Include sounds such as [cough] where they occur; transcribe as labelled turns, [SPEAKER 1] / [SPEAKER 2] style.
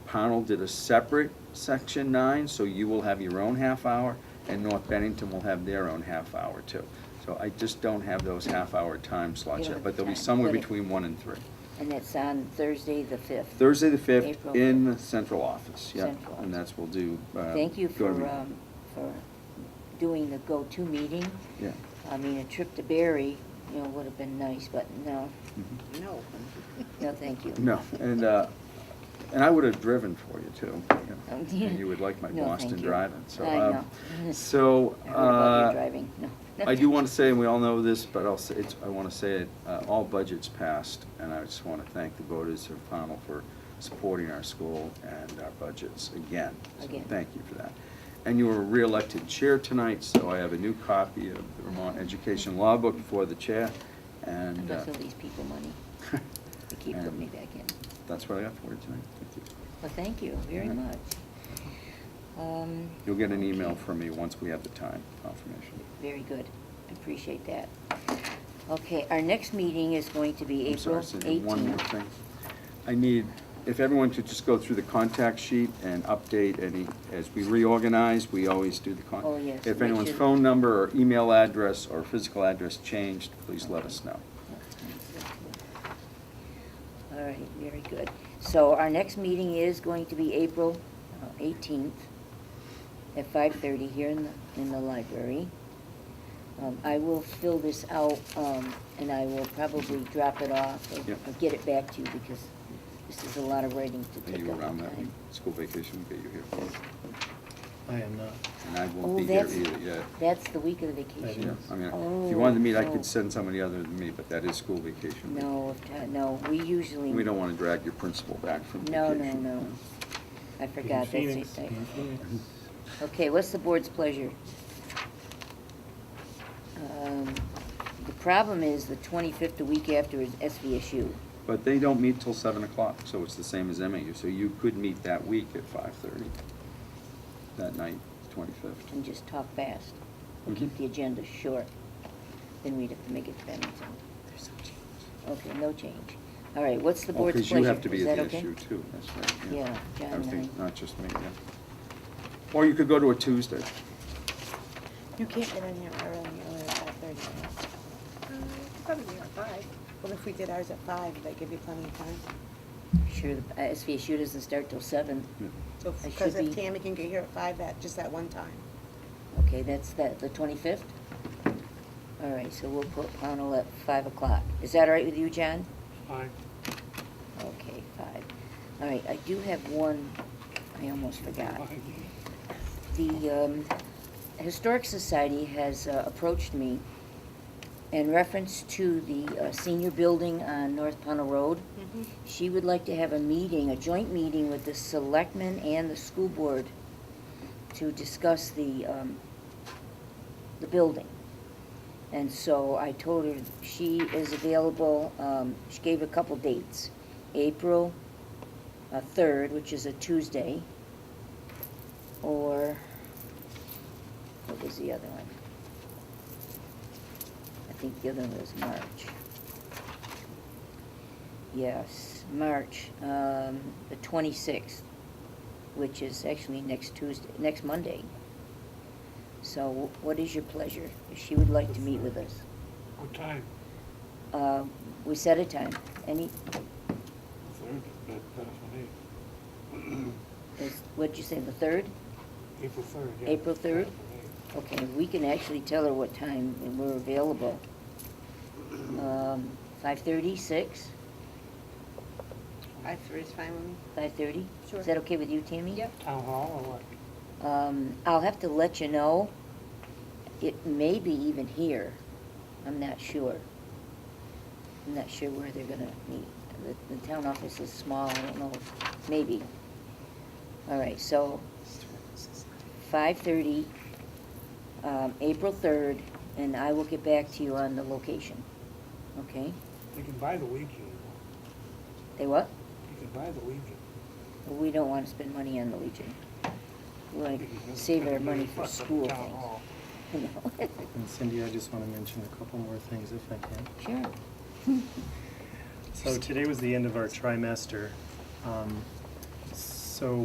[SPEAKER 1] Pownell did a separate section nine, so you will have your own half hour, and North Bennington will have their own half hour too. So I just don't have those half hour time slots
[SPEAKER 2] You don't
[SPEAKER 1] yet,
[SPEAKER 2] have
[SPEAKER 1] but they'll be
[SPEAKER 2] time.
[SPEAKER 1] somewhere
[SPEAKER 2] Got it.
[SPEAKER 1] between one and three.
[SPEAKER 2] And it's on Thursday, the 5th.
[SPEAKER 1] Thursday, the fifth,
[SPEAKER 2] April.
[SPEAKER 1] in the central office, yeah,
[SPEAKER 2] Central
[SPEAKER 1] and
[SPEAKER 2] office.
[SPEAKER 1] that's, we'll do. uh,
[SPEAKER 2] Thank you for,
[SPEAKER 1] Gordon.
[SPEAKER 2] um, for doing the go-to meeting.
[SPEAKER 1] Yeah.
[SPEAKER 2] I mean, a trip to Barry, you know, would have been nice, but no,
[SPEAKER 1] Mhm.
[SPEAKER 3] No.
[SPEAKER 2] no, thank you.
[SPEAKER 1] No, and, uh, and I would have driven for you
[SPEAKER 2] [laughs]
[SPEAKER 1] too. you know,
[SPEAKER 2] Oh,
[SPEAKER 1] And you would like my
[SPEAKER 2] no,
[SPEAKER 1] Boston
[SPEAKER 2] thank you.
[SPEAKER 1] driving, so.
[SPEAKER 2] I
[SPEAKER 1] um,
[SPEAKER 2] know. [laughs]
[SPEAKER 1] So.
[SPEAKER 2] I heard about
[SPEAKER 1] uh,
[SPEAKER 2] you driving, no.
[SPEAKER 1] I do want to say, and we all know this, but I'll say, it's, I want to say it, uh, all budgets passed, and I just want to thank the voters of Pownell for supporting our school and our budgets again. So
[SPEAKER 2] Again.
[SPEAKER 1] Thank you for that. And you were re-elected chair tonight, so I have a new copy of the Vermont Education Law Book for the chair,
[SPEAKER 2] [laughs] I'm
[SPEAKER 1] and uh, [laughs]
[SPEAKER 2] gonna sell these people money to keep
[SPEAKER 1] And-
[SPEAKER 2] putting me back in.
[SPEAKER 1] that's what I got for you tonight. Thank you.
[SPEAKER 2] Well, thank you very
[SPEAKER 1] Yeah.
[SPEAKER 2] much. Um,
[SPEAKER 1] You'll get an email
[SPEAKER 2] okay.
[SPEAKER 1] from me once we have the time confirmation.
[SPEAKER 2] Very good. I appreciate that. Okay, our next meeting is going to be
[SPEAKER 1] I'm sorry,
[SPEAKER 2] April
[SPEAKER 1] Cindy, One more
[SPEAKER 2] 18th.
[SPEAKER 1] thing. I need, if everyone could just go through the contact sheet and update any, as we reorganize, we always do the con.
[SPEAKER 2] Oh, yes,
[SPEAKER 1] If
[SPEAKER 2] we
[SPEAKER 1] anyone's
[SPEAKER 2] should-
[SPEAKER 1] phone number or email address or physical address changed, please let us know.
[SPEAKER 2] All right, very good. So our next meeting is going to be April uh, 18th at 5:30 here in the, in the library. Um, I will fill this out, um, and I will probably drop it off or-
[SPEAKER 1] Yep.
[SPEAKER 2] or get it back to you because this is a lot of writing to
[SPEAKER 1] Are
[SPEAKER 2] take
[SPEAKER 1] you
[SPEAKER 2] up
[SPEAKER 1] around
[SPEAKER 2] the
[SPEAKER 1] that week?
[SPEAKER 2] time.
[SPEAKER 1] School vacation, will get you here.
[SPEAKER 4] I am not.
[SPEAKER 1] And I
[SPEAKER 2] Oh,
[SPEAKER 1] won't be here
[SPEAKER 2] that's- Oh,
[SPEAKER 1] either, yeah.
[SPEAKER 2] That's the week of the vacation.
[SPEAKER 1] Yeah, I mean, if you wanted to meet, I could
[SPEAKER 2] send.
[SPEAKER 1] send somebody other than me, but that is school vacation. week.
[SPEAKER 2] No, uh, no, we usually.
[SPEAKER 1] We don't want to drag your principal back from
[SPEAKER 2] No,
[SPEAKER 1] vacation.
[SPEAKER 2] no, no. I forgot, that's
[SPEAKER 4] Phoenix,
[SPEAKER 2] it. I-
[SPEAKER 4] in Phoenix.
[SPEAKER 2] Okay, what's the board's pleasure? Um, The problem is the 25th, the week after, is SVSU.
[SPEAKER 1] But they don't meet till seven o'clock, so it's the same as MAU, so you could meet that week at five thirty, that night, twenty-fifth.
[SPEAKER 2] And just talk fast. We'll keep
[SPEAKER 1] Mhm.
[SPEAKER 2] the agenda short. Then we'd have to make it to Bennington. There's no change. Okay, no change. All right, what's the board's
[SPEAKER 1] Oh, Because you
[SPEAKER 2] pleasure?
[SPEAKER 1] have to be
[SPEAKER 2] Is
[SPEAKER 1] at
[SPEAKER 2] that
[SPEAKER 1] the
[SPEAKER 2] okay?
[SPEAKER 1] issue too, that's right.
[SPEAKER 2] Yeah, John
[SPEAKER 1] I think,
[SPEAKER 2] and I.
[SPEAKER 1] not just me, yeah. Or you could go to a Tuesday.
[SPEAKER 5] You can't get in here early, earlier at five thirty. Mm, Probably be at five. Well, if we did ours at five, would that give you plenty of time?
[SPEAKER 2] Sure, the uh, SVSU doesn't start till seven.
[SPEAKER 1] Yeah.
[SPEAKER 5] So,
[SPEAKER 2] I
[SPEAKER 5] because
[SPEAKER 2] should
[SPEAKER 5] if
[SPEAKER 2] be-
[SPEAKER 5] Tammy can get here at five, that, just that one time.
[SPEAKER 2] Okay, that's that, the twenty-fifth? All right, so we'll put Pownell at five o'clock. Is that all right with you, John?
[SPEAKER 6] Aye.
[SPEAKER 2] Okay, five. All right, I do have one, I almost forgot. The um, Historic Society has uh, approached me in reference to the uh, senior building on North Pownell Road.
[SPEAKER 5] Mm-hmm.
[SPEAKER 2] She would like to have a meeting, a joint meeting with the selectmen and the school board to discuss the, um, the building. And so I told her she is available, um, she gave a couple dates. April uh, 3rd, which is a Tuesday, or, what was the other one? I think the other one was March. Yes, March, um, the 26th, which is actually next Tuesday, next Monday. So what is your pleasure? She would like to meet with us.
[SPEAKER 6] What time?
[SPEAKER 2] Uh, We set a time. Any,
[SPEAKER 6] Third, that, that's for me.
[SPEAKER 2] is- what'd you say, the 3rd?
[SPEAKER 6] April third, yeah.
[SPEAKER 2] April 3rd?
[SPEAKER 6] That's for me.
[SPEAKER 2] Okay, we can actually tell her what time we're available. Um, 5:30, 6,
[SPEAKER 5] Five, three is fine with me.
[SPEAKER 2] 5:30?
[SPEAKER 5] Sure.
[SPEAKER 2] Is that okay with you, Tammy?
[SPEAKER 5] Yep.
[SPEAKER 6] Town hall or what?
[SPEAKER 2] Um, I'll have to let you know. It may be even here. I'm not sure. I'm not sure where they're gonna meet. The, the town office is small, I don't know, maybe. All right, so five thirty, um, April third, and I will get back to you on the location. Okay?
[SPEAKER 6] You can buy the Legion. you
[SPEAKER 2] They what?
[SPEAKER 6] know. You can buy the Legion.
[SPEAKER 2] We don't wanna spend money on the Legion. We wanna save our money for school
[SPEAKER 6] Town hall.
[SPEAKER 2] things. [laughs] You know?
[SPEAKER 4] And Cindy, I just want to mention a couple more things if I can.
[SPEAKER 2] [laughs] Sure.
[SPEAKER 4] So today was the end of our trimester. Um,